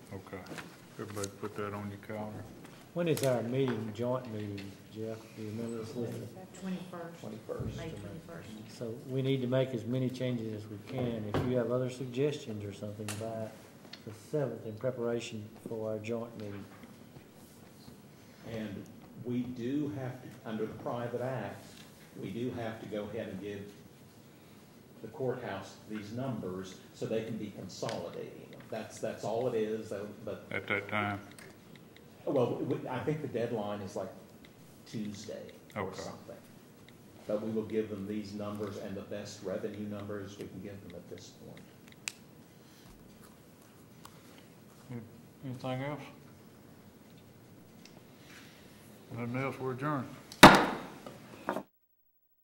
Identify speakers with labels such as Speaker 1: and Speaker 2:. Speaker 1: Everybody put that on your calendar.
Speaker 2: When is our meeting, joint meeting, Jeff? Do you remember this list?
Speaker 3: Twenty-first,
Speaker 4: Twenty-first.
Speaker 3: May twenty-first.
Speaker 2: So we need to make as many changes as we can. If you have other suggestions or something by the seventh in preparation for our joint meeting.
Speaker 4: And we do have to, under the private act, we do have to go ahead and give the courthouse these numbers so they can be consolidating them. That's, that's all it is, though, but,
Speaker 1: At that time,
Speaker 4: well, we- I think the deadline is like Tuesday or
Speaker 1: Okay.
Speaker 4: something. But we will give them these numbers and the best revenue numbers we can give them at this point.
Speaker 1: anything else? Nothing else, we're adjourned.